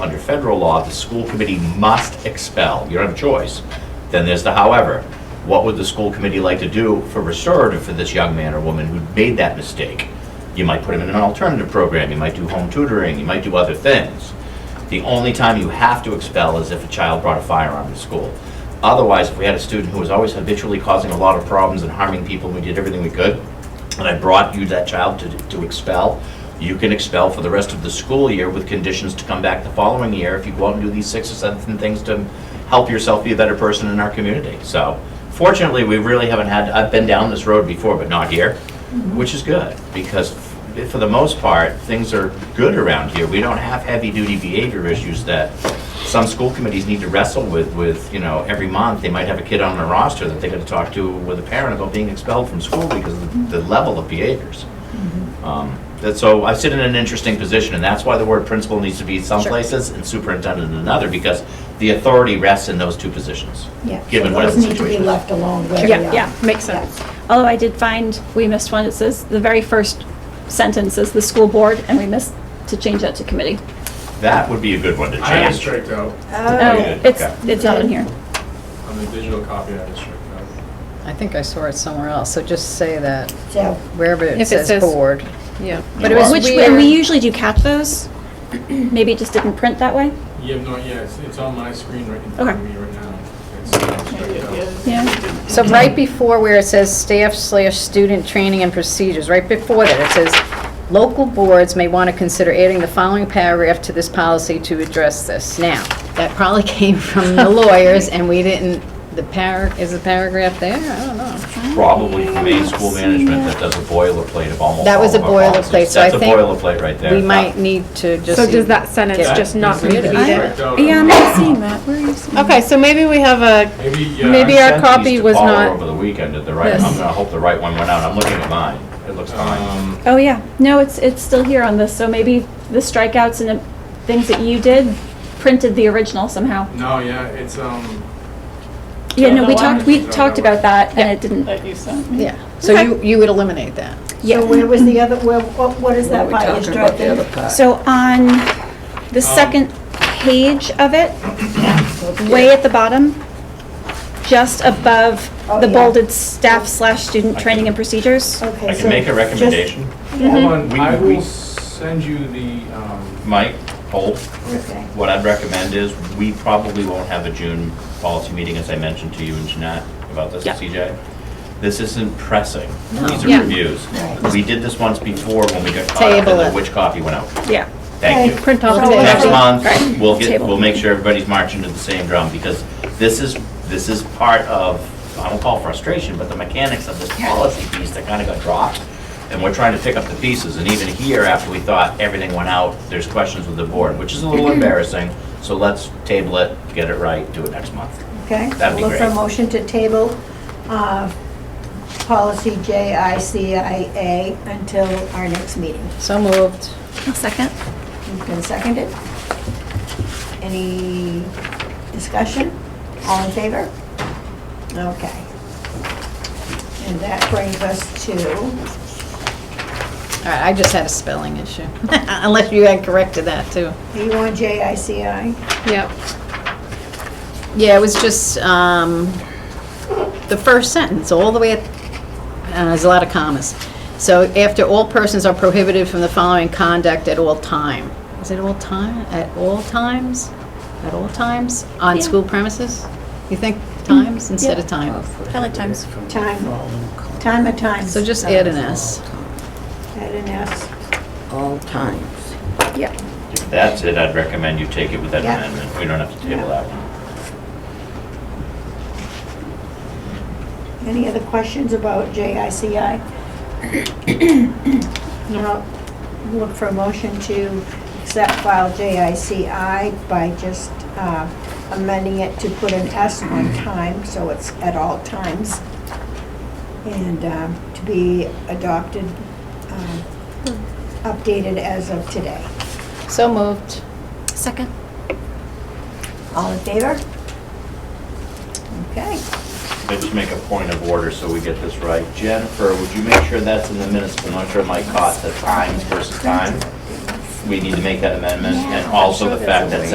Under federal law, the school committee must expel. You don't have a choice. Then there's the however. What would the school committee like to do for restorative for this young man or woman who made that mistake? You might put him in an alternative program, you might do home tutoring, you might do other things. The only time you have to expel is if a child brought a firearm to school. Otherwise, if we had a student who was always habitually causing a lot of problems and harming people, and we did everything we could, and I brought you that child to, to expel, you can expel for the rest of the school year with conditions to come back the following year if you go out and do these six or seven things to help yourself be a better person in our community. So fortunately, we really haven't had, I've been down this road before, but not here, which is good, because f- for the most part, things are good around here. We don't have heavy-duty behavior issues that some school committees need to wrestle with, with, you know, every month, they might have a kid on their roster that they gotta talk to with a parent about being expelled from school because of the level of behaviors. Um, That, so I sit in an interesting position, and that's why the word principal needs to be in some Sure. places and superintendent in another, because the authority rests in those two positions. Yeah, so Given whatever those the need to be situation is. left alone where they Yeah, are. yeah, makes sense. Although I did find, we missed one, it says, the very first sentence is the school board, and we missed to change that to committee. That would be a good one to I had it change. striked out. Oh, yeah, it's, okay. it's not in here. On the digital copy, I had it striked out. I think I saw it somewhere else, so just say that So, wherever If it it says- says board. Yeah, You but it are. was Which, weird. and we usually do catch those. Maybe it just didn't print that way. You have no, yeah, it's, it's on my screen right in front of Okay. me right now. It's uh, striked out. Yeah. So right before where it says staff slash student training and procedures, right before that, it says, local boards may want to consider adding the following paragraph to this policy to address this. Now, that probably came from the lawyers, and we didn't, the par, is the paragraph there? I don't know. Probably from a school management that does a boilerplate of almost That all was of a our policies. boilerplate, so I think That's a boilerplate right there. We might need to just. So does that sentence get- just not get need rid to of be It's it. I- striked out. Yeah, I'm not seeing that. Where are you seeing? Okay, so maybe we have a, Maybe, yeah. Maybe I- our Sent these copy to was Paula not Over the weekend at the right, I'm this. gonna hope the right one went out. I'm looking at mine. It looks fine. um, Oh, yeah. No, it's, it's still here on this, so maybe the strikeouts and the things that you did printed the original somehow. No, yeah, it's, um, Yeah, no, we No, I talked, we understand. talked about that, and it didn't, that you sent me. Yeah, so you, you would eliminate that. so where was the other, where, what what is that We're by talking about the other instructing? part. So on the Um, second page of it, way at the bottom, just above Oh, the yeah. bolded staff slash student training and procedures. Okay, I so can make a just- recommendation. hold on, We- I we- will send you the, um, Mike, hold. Okay. What I'd recommend is, we probably won't have a June policy meeting, as I mentioned to you and Jeanette about this, Yeah. CJ. This isn't pressing. These Yeah. are reviews. Right. We did this once before when we got caught up in Table the it. which copy went out. Yeah. Thank you. Okay. print off So the Next let's do- month, we'll get, Table. we'll make sure everybody's marching to the same drum, because this is, this is part of, I won't call frustration, but the mechanics of this policy piece that kind of got dropped. And we're trying to pick up the pieces, and even here, after we thought everything went out, there's questions with the board, which is a little embarrassing. So let's table it, get it right, do it next month. Okay. That'd be Look for a great. motion to table, uh, policy JICIA until our next meeting. So moved. A second? You can second it. Any discussion? All in favor? Okay. And that brings us to, All right, I just had a spelling issue, unless you had corrected that too. do you want JICI? Yep. Yeah, it was just um, the first sentence, all the way, at- uh, there's a lot of commas. So after all persons are prohibited from the following conduct at all time. Is it all time, at all times? At all times, on Yeah. school premises? You think times instead of time? I like times. Time, time of time. Uh, So just add an S. Add an S. all times. Yeah. If that's it, I'd recommend you take it with that Yeah. amendment. We don't have to table that one. Any other questions about JICI? Now, look for a motion to accept file JICI by just uh, amending it to put an S on time, so it's at all times, and um, to be adopted, um, updated as of today. So moved. Second? All in favor? Okay. I just make a point of order so we get this right. Jennifer, would you make sure that's in the minutes? I'm not sure Mike caught the times versus time. We need to make that amendment and also the fact that